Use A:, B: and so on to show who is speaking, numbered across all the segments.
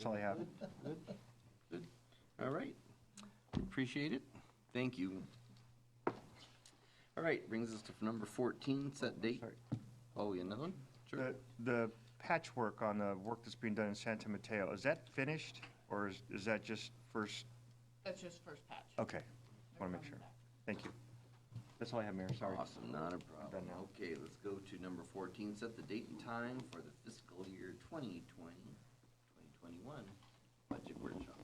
A: That's all I have.
B: All right. Appreciate it. Thank you. All right, brings us to number 14, set date.
A: Sorry. Uh,
B: Oh, you another one? Sure.
A: The, the patchwork on the work that's being done in Santa Mateo, is that finished or is, is that just first?
C: That's just first patch.
A: Okay,
C: They're
A: want to Oh, make
C: coming
A: sure.
C: back.
A: Thank you. That's all I have, Mayor, sorry.
B: Awesome, not a
A: Done
B: problem.
A: now.
B: Okay, let's go to number 14, set the date and time for the fiscal year 2020, 2021 budget workshop.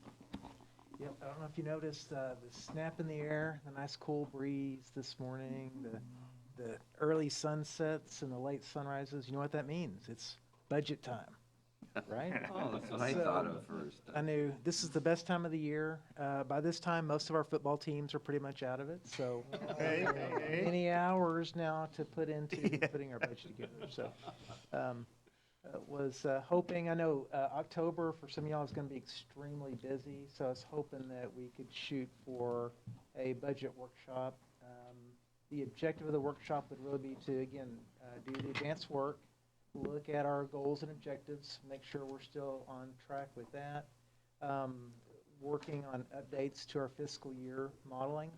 D: Yep, I don't know if you noticed, uh, the snap in the air, the nice cool breeze this morning, the, the early sunsets and the late sunrises, you know what that means? It's budget time, right?
B: Oh, that's what I thought of first.
D: I knew this is the best time of the year. Uh, by this time, most of our football teams are pretty much out of it, so
A: Hey,
D: uh,
A: hey, hey.
D: many hours now to put into putting our budget together, so. um, uh, Was uh, hoping, I know uh, October for some of y'all is going to be extremely busy, so I was hoping that we could shoot for a budget workshop. Um, The objective of the workshop would really be to, again, uh, do the advanced work, look at our goals and objectives, make sure we're still on track with that. Um, Working on updates to our fiscal year modeling,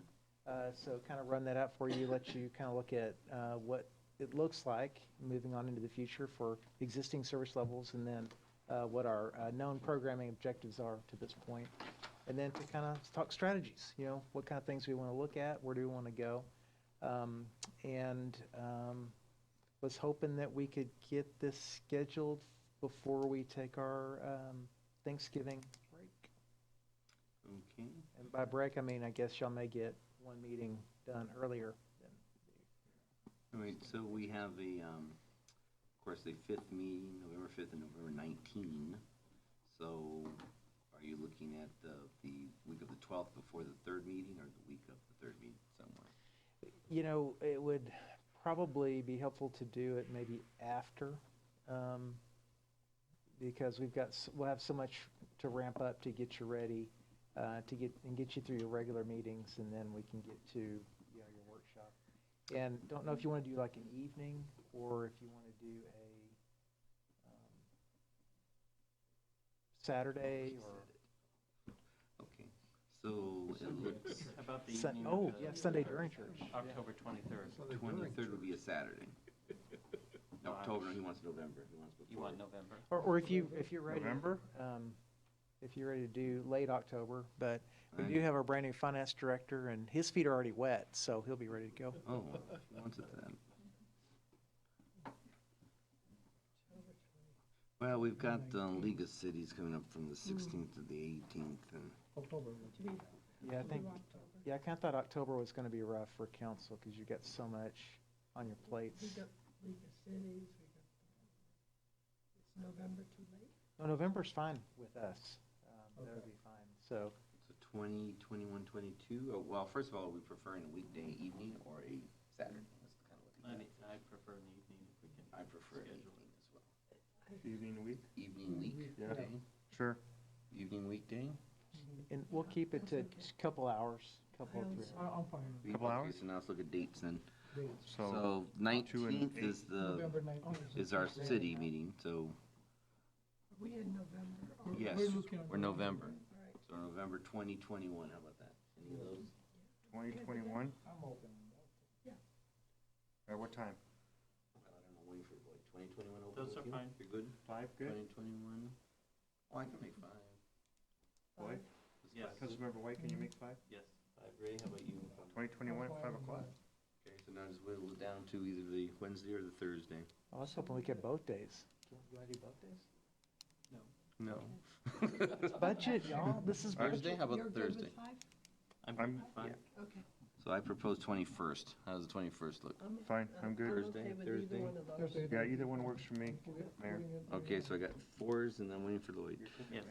D: uh, so kind of run that out for you, let you kind of look at uh, what it looks like moving on into the future for existing service levels and then uh, what our uh, known programming objectives are to this point. And then to kind of talk strategies, you know, what kind of things we want to look at, where do we want to go? Um, And um, was hoping that we could get this scheduled before we take our um, Thanksgiving break.
B: Okay.
D: And by break, I mean, I guess y'all may get one meeting done earlier than
B: All right, so we have the, um, of course, the fifth meeting, November fifth and November nineteen. So are you looking at the, the week of the twelfth before the third meeting or the week of the third meeting somewhere?
D: You know, it would probably be helpful to do it maybe after, um, because we've got, s- we'll have so much to ramp up to get you ready, uh, to get, and get you through your regular meetings, and then we can get to, you know, your workshop. And don't know if you want to do like an evening, or if you want to do a um, Saturday, or,
B: Okay, so it looks
E: How about the
D: Sun-
E: evening? of
D: oh,
E: the uh,
D: yeah, Sunday during church. yeah.
E: October 23rd.
B: twenty-third would be a Saturday. October, he wants November, he wants
E: You
B: before.
E: want November?
D: Or, or if you, if you're ready.
A: November?
D: um, If you're ready to do late October, but we
B: Right.
D: do have our brand new finance director and his feet are already wet, so he'll be ready to go.
B: Oh, he wants it then. Well, we've got, uh, League of Cities coming up from the sixteenth to the eighteenth and.
D: Yeah, I think, yeah, I kind of thought October was going to be rough for council because you got so much on your plates. No, November's fine with us. Um, That'll be fine. So,
B: So 20, 21, 22, oh, well, first of all, are we preferring a weekday evening or a Saturday? Let's kind of
E: I
B: look at
E: mean, I prefer an evening if we can.
B: that. I prefer an
E: Schedule.
B: evening as well.
A: Evening week?
B: Evening week,
A: Yeah.
B: okay,
A: Sure.
B: evening weekday?
D: and we'll keep it to a couple hours, couple, three.
F: I'm fine.
B: We-
A: Couple
B: okay,
A: hours?
B: So now let's look at dates then.
A: So,
B: So 19th is the,
F: November nineteenth.
B: is our city meeting, so,
G: We in November. or-
B: yes,
F: we're looking at
B: we're November.
G: Right.
B: So November 2021, how about that? Any of those?
A: 2021,
F: I'm open.
A: at uh, what time?
B: Well, I don't know, waiting for, like, 2021 open?
E: Those
B: with
E: are
B: you?
E: fine.
B: You're good?
A: Five,
B: 2021? Oh, I can make five.
A: Boy,
B: Does
E: Yes.
B: five-
A: Councilmember White, can you make five?
E: Yes.
B: Five, Ray, how about you?
A: 2021 at 5 o'clock?
B: Okay, so now just whittle it down to either the Wednesday or the Thursday.
D: Oh, I was hoping we could both days. Do you want to do both days?
B: No.
D: It's budget, y'all. This is budget.
B: Thursday, how
G: You're
B: about
G: good with
B: Thursday?
G: five?
A: I'm-
E: fine.
G: Okay.
B: So I propose twenty-first. How does the twenty-first look?
G: I'm-
A: Fine, I'm good.
B: Thursday,
G: okay with either
B: Thursday.
G: one of those.
F: Thursday.
A: Yeah, either one works for me, Mayor.
B: Okay, so I got fours and then waiting for Lloyd.
E: Yes.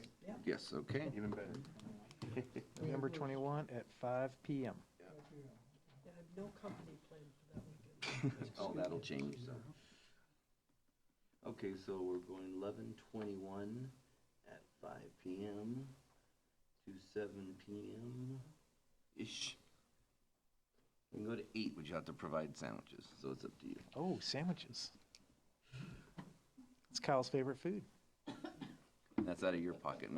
B: Yes, okay.
A: Even better.
D: November 21 at 5 PM.
G: I have no company planned for that weekend.
B: Oh, that'll change, so. Okay, so we're going eleven twenty-one at five P M to seven P M-ish. We can go to eight, but you have to provide sandwiches, so it's up to you.
D: Oh, sandwiches. It's Kyle's favorite food.
B: That's out of your pocket, not